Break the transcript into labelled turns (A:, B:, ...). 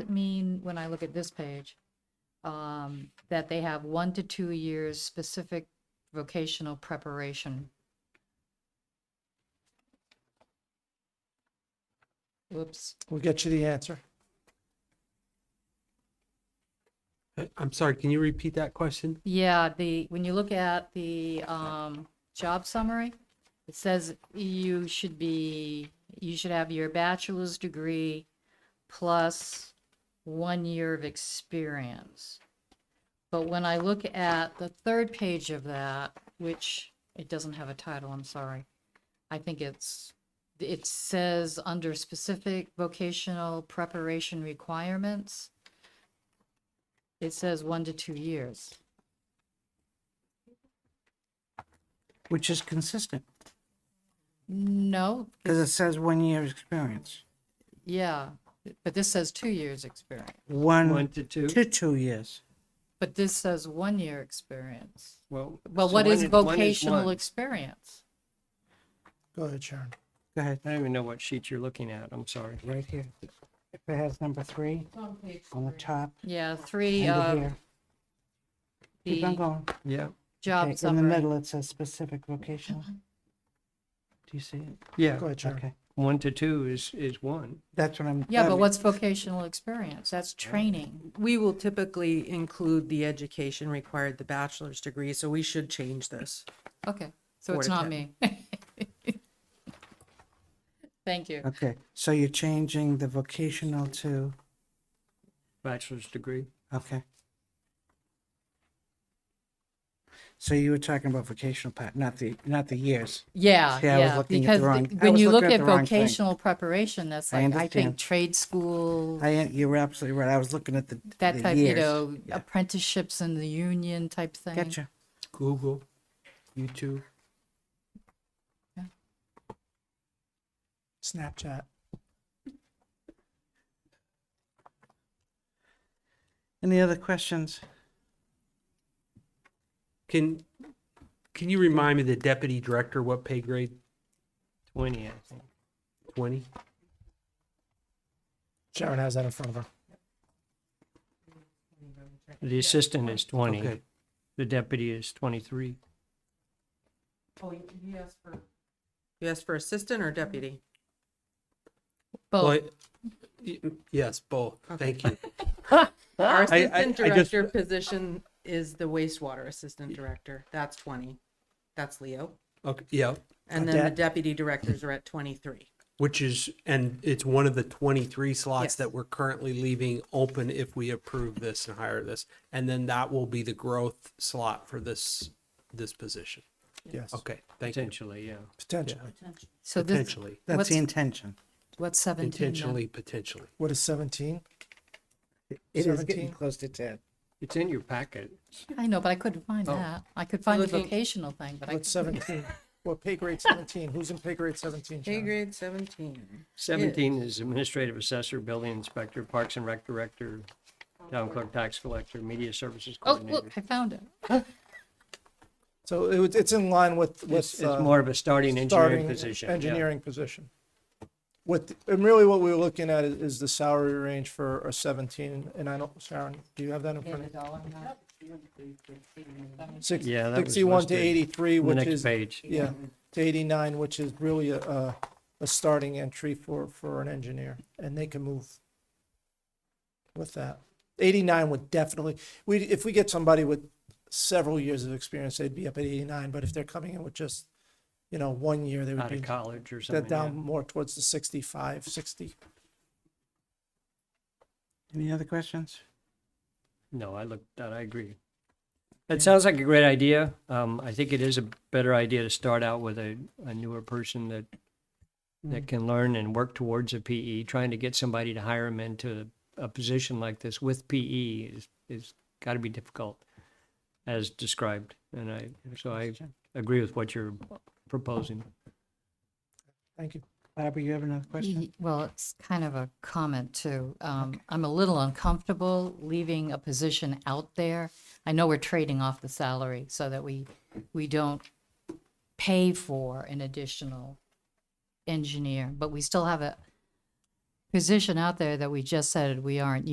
A: it mean, when I look at this page, um, that they have one to two years specific vocational preparation? Whoops,
B: We'll get you the answer.
C: I- I'm sorry, can you repeat that question?
A: yeah, the, when you look at the, um, job summary, it says you should be, you should have your bachelor's degree plus one year of experience. But when I look at the third page of that, which it doesn't have a title, I'm sorry. I think it's, it says under specific vocational preparation requirements, it says one to two years.
D: which is consistent
A: No,
D: because it says one year experience,
A: yeah, but this says two years experience,
C: One
D: one
C: to two?
D: to two years.
A: but this says one year experience.
C: Well,
A: Well,
C: so
A: what
C: one
A: is
C: one
A: vocational
C: one.
A: experience?
B: Go ahead, Sharon.
D: Go ahead,
C: I don't even know what sheet you're looking at. I'm sorry.
D: right here. If it has number three on the top,
A: Yeah, three
D: under
A: of
D: here, keep on
A: uh, the
D: going.
C: Yeah.
A: job
D: Okay, In the
A: summary. Uh-huh.
D: middle, it says specific vocational. Do you see it?
B: Go
C: Yeah.
B: ahead, Sharon.
D: Okay,
C: One to two is, is one.
D: that's what I'm.
A: Yeah, but
D: um,
A: what's vocational experience? That's training.
E: We will typically include the education required, the bachelor's degree, so we should change this.
A: Okay, so
E: Four
A: it's
E: to
A: not
E: ten.
A: me. Thank you.
D: Okay, so you're changing the vocational to,
C: Bachelor's degree.
D: okay. So you were talking about vocational part, not the, not the years.
A: Yeah,
D: See, I was
A: yeah,
D: looking at the
A: because
D: wrong-
A: the-
D: I
A: when
D: was
A: you look
D: looking at
A: at
D: the wrong thing.
A: vocational preparation, that's
D: I
A: like, I think
D: understand.
A: trade school,
D: I, you're absolutely right. I was looking at the,
A: that
D: the
A: type, you
D: years.
A: know,
D: Yeah.
A: apprenticeships in the union type thing.
D: Gotcha.
C: Google, YouTube.
B: Snapchat.
D: Any other questions?
C: Can, can you remind me the deputy director, what pay grade? Twenty, I think. Twenty?
B: Sharon has that in front of her.
C: The assistant is twenty.
D: Okay.
C: The deputy is twenty-three.
E: Oh, yes, for. You asked for assistant or deputy?
C: Well,
A: Both,
C: I- y- Yes, both. Thank you.
E: Our
C: I-
E: assistant
C: I just-
E: director position is the wastewater assistant director. That's twenty. That's Leo.
C: Okay, yeah,
E: And then
B: Got
E: the
B: that.
E: deputy directors are at twenty-three.
C: which is, and it's one of the 23 slots
E: Yes.
C: that we're currently leaving open if we approve this and hire this. And then that will be the growth slot for this, this position.
B: Yes,
C: Okay, thank you. Potentially, yeah.
B: potentially.
A: so this,
C: Potentially,
D: That's the
A: What's-
D: intention.
A: what's seventeen then?
C: intentionally, potentially.
B: What is 17?
D: It is getting
B: 17?
D: close to ten.
C: It's in your packet.
A: I know, but I couldn't find
C: Oh.
A: that. I could find the
E: Looking-
A: vocational thing, but I
B: What's
A: couldn't.
B: 17? What pay grade 17? Who's in pay grade 17?
E: Pay
B: Sharon?
E: grade seventeen.
F: 17 is administrative assessor, building inspector, parks and rec director, town clerk, tax collector, media services
A: Oh, look,
F: coordinator.
A: I found it.
B: So it was, it's in line
F: It's
B: with, with.
F: it's
B: uh,
F: more of a starting engineering
B: starting
F: position. yeah.
B: Engineering position. What, and really what we were looking at is, is the salary range for a 17, and I don't, Sharon, do you have that in front of you? Six-
F: Yeah, that was
B: 61 to
F: listed
B: 83,
F: The
B: which
F: next
B: is,
F: page.
B: yeah, to 89, which is really a, a, a starting entry for, for an engineer, and they can move with that. 89 would definitely, we, if we get somebody with several years of experience, they'd be up at 89, but if they're coming in with just, you know, one year, they would
F: Out
B: be
F: of college or
B: that
F: something. yeah.
B: down more towards the 65, 60.
D: Any other questions?
F: No, I looked, that, I agree. That sounds like a great idea. Um, I think it is a better idea to start out with a, a newer person that, that can learn and work towards a PE. Trying to get somebody to hire them into a position like this with PE is, is gotta be difficult as described. And I, so I agree with what you're proposing.
B: Thank you.
D: Barbara, you have another question?
A: Ye- Well, it's kind of a comment too. Um, I'm a little uncomfortable leaving a position out there. I know we're trading off the salary so that we, we don't pay for an additional engineer, but we still have a position out there that we just said we aren't